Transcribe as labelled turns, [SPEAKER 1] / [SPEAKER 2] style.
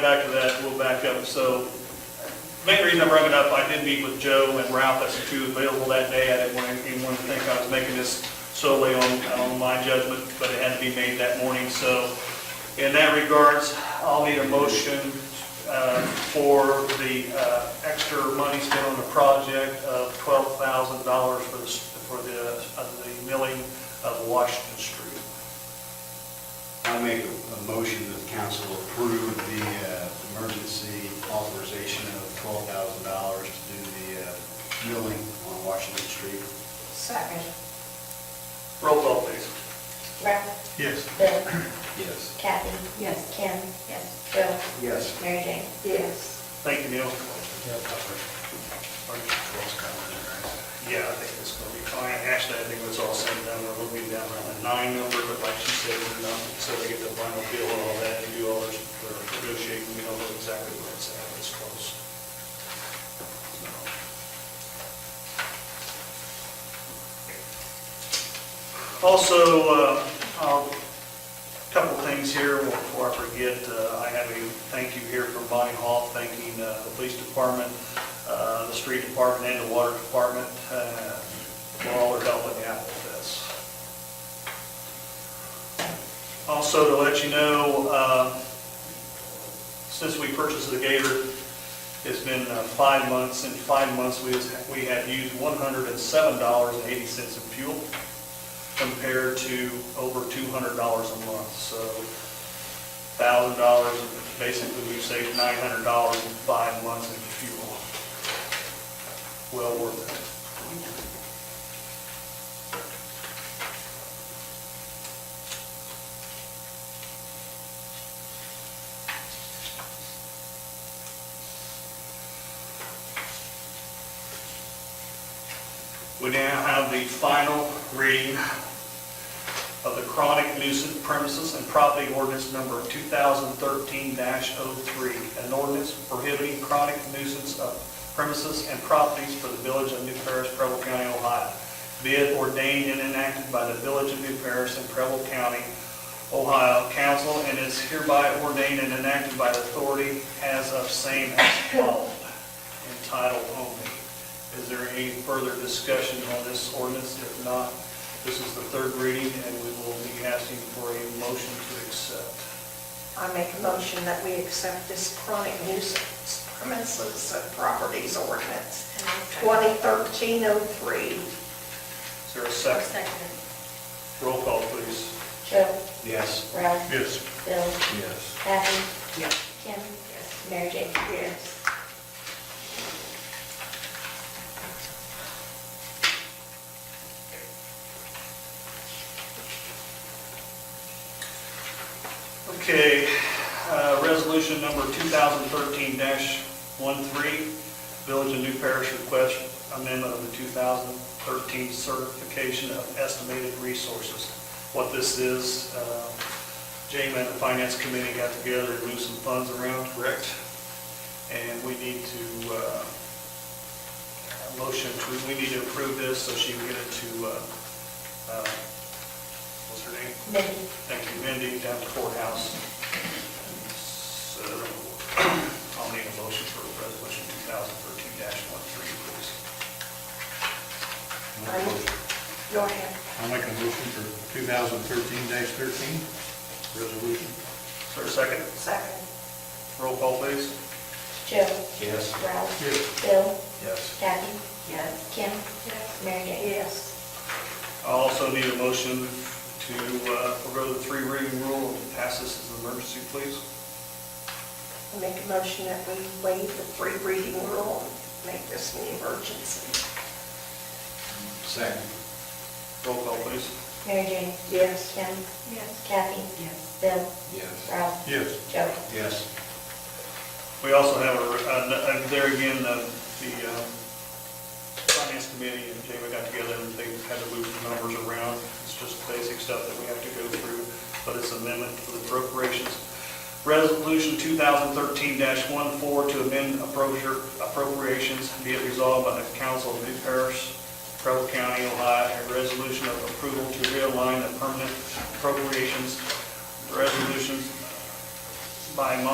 [SPEAKER 1] back to that, we'll back up. So main reason I brought it up, I did meet with Joe and Ralph, that's the two available that day. I didn't want anyone to think I was making this solely on, on my judgment, but it had to be made that morning. So in that regards, I'll need a motion uh, for the uh, extra money spent on the project of twelve thousand dollars for the, for the, of the milling of Washington Street.
[SPEAKER 2] I make a a motion that the council approve the uh, emergency authorization of $12,000 to do the uh, milling on Washington Street.
[SPEAKER 3] Second.
[SPEAKER 1] Roll call, please.
[SPEAKER 3] Ralph?
[SPEAKER 1] Yes.
[SPEAKER 3] Bill?
[SPEAKER 2] Yes.
[SPEAKER 3] Kathy?
[SPEAKER 4] Yes.
[SPEAKER 3] Kim? Yes. Joe?
[SPEAKER 2] Yes.
[SPEAKER 3] Mary Jane?
[SPEAKER 4] Yes.
[SPEAKER 1] Thank you, Neil.
[SPEAKER 2] Yes.
[SPEAKER 1] Yeah, I think it's gonna be fine. Actually, I think it's all said and done, we're looking down around the nine number, but like she said, we're not, so they get the final bill and all that, and do all this, or negotiate, we don't know exactly where it's at, it's close. Also, uh, I'll Couple things here before I forget. Uh, I have a thank you here from Bonnie Hall, thanking uh, the police department, uh, the street department, and the water department uh, for all their help and out with this. Also, to let you know, uh, since we purchased the Gator, it's been uh, five months. In five months, we has- we have used $107.80 in fuel compared to over two hundred dollars a month, so thousand dollars, basically we've saved nine hundred dollars in five months in fuel. Well worth it. We now have the final reading of the chronic nuisance premises and property ordinance number 2013-03, an ordinance prohibiting chronic nuisance of premises and properties for the village of New Paris, Preble County, Ohio, be it ordained and enacted by the village of New Paris and Preble County, Ohio Council, and is hereby ordained and enacted by the authority as of same as called, entitled only. Is there any further discussion on this ordinance? If not, this is the third reading, and we will be asking for a motion to accept.
[SPEAKER 3] I make a motion that we accept this chronic nuisance premises and properties ordinance, 2013-03.
[SPEAKER 1] Is there a second? Roll call, please.
[SPEAKER 3] Joe?
[SPEAKER 2] Yes.
[SPEAKER 3] Ralph?
[SPEAKER 1] Yes.
[SPEAKER 3] Bill?
[SPEAKER 2] Yes.
[SPEAKER 3] Kathy? Yes. Kim? Yes. Mary Jane? Yes.
[SPEAKER 1] Okay, uh, resolution number 2013-13, Village of New Parish request amendment of the 2013 certification of estimated resources. What this is, uh, Jamie and the Finance Committee got together and moved some funds around, correct? And we need to, uh, a motion, to- we need to approve this so she can get it to, uh, uh, what's her name?
[SPEAKER 3] Mindy?
[SPEAKER 1] Thank you, Mindy, down to courthouse. So, I'll need a motion for resolution 2013-13, please.
[SPEAKER 3] Go ahead.
[SPEAKER 2] I'll make a motion for 2013-13 resolution.
[SPEAKER 1] Is there a second?
[SPEAKER 3] Second.
[SPEAKER 1] Roll call, please.
[SPEAKER 3] Joe?
[SPEAKER 2] Yes.
[SPEAKER 3] Ralph?
[SPEAKER 2] Yes.
[SPEAKER 3] Bill?
[SPEAKER 2] Yes.
[SPEAKER 3] Kathy?
[SPEAKER 4] Yes.
[SPEAKER 3] Kim? Yes. Mary Jane? Yes.
[SPEAKER 1] I also need a motion to uh, forego the three reading rule and pass this as an emergency, please.
[SPEAKER 3] I make a motion that we waive the free reading rule and make this an emergency.
[SPEAKER 2] Second.
[SPEAKER 1] Roll call, please.
[SPEAKER 3] Mary Jane? Yes. Kim? Yes. Kathy?
[SPEAKER 4] Yes.
[SPEAKER 3] Bill?
[SPEAKER 2] Yes.
[SPEAKER 3] Ralph?
[SPEAKER 2] Yes.
[SPEAKER 3] Joe?
[SPEAKER 2] Yes.
[SPEAKER 1] We also have, a- a- a- there again, uh, the um, Finance Committee and Jamie got together and they had to move some numbers around. It's just basic stuff that we have to go through, but it's amendment for the appropriations. Resolution 2013-14 to amend appropriate- appropriations be it resolved by the Council of New Paris, Preble County, Ohio, a resolution of approval to realign the permanent appropriations resolutions by month